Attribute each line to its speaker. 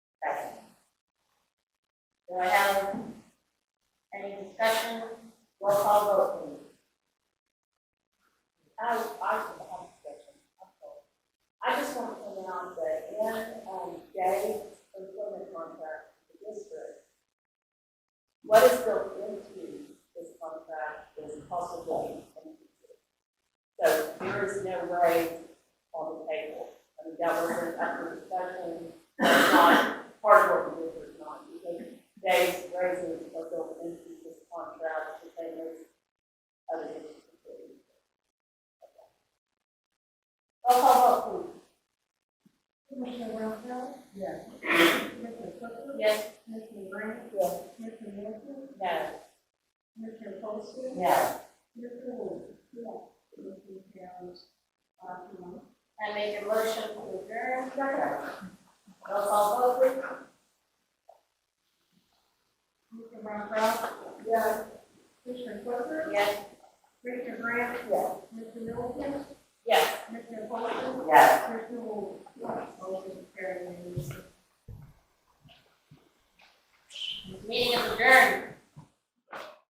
Speaker 1: Second. Do I have any discussion? Roll call vote, please.
Speaker 2: I, I have a question. I'm sorry. I just want to point out that in, um, Dave's employment contract with the district, what is built into this contract is possible and feasible. So there is no raise on the table. I mean, that was an effort discussion, It's not part of what the district's not, because Dave's raises are built into this contract, the same as other district employees. Roll call vote, please.
Speaker 3: Commissioner Wilson?
Speaker 2: Yes.
Speaker 3: Commissioner Clifford?
Speaker 2: Yes.
Speaker 3: Commissioner Grant?
Speaker 2: Yes.
Speaker 3: Commissioner Wilson?
Speaker 2: No.
Speaker 3: Commissioner Postle?
Speaker 2: No.
Speaker 3: Commissioner Wood? Yes. Motion carries five to one.
Speaker 1: I make a motion to adjourn. Roll call vote, please.
Speaker 3: Commissioner Montrose?
Speaker 2: Yes.
Speaker 3: Commissioner Clifford?
Speaker 1: Yes.
Speaker 3: Commissioner Grant?
Speaker 2: Yes.
Speaker 3: Commissioner Wilson?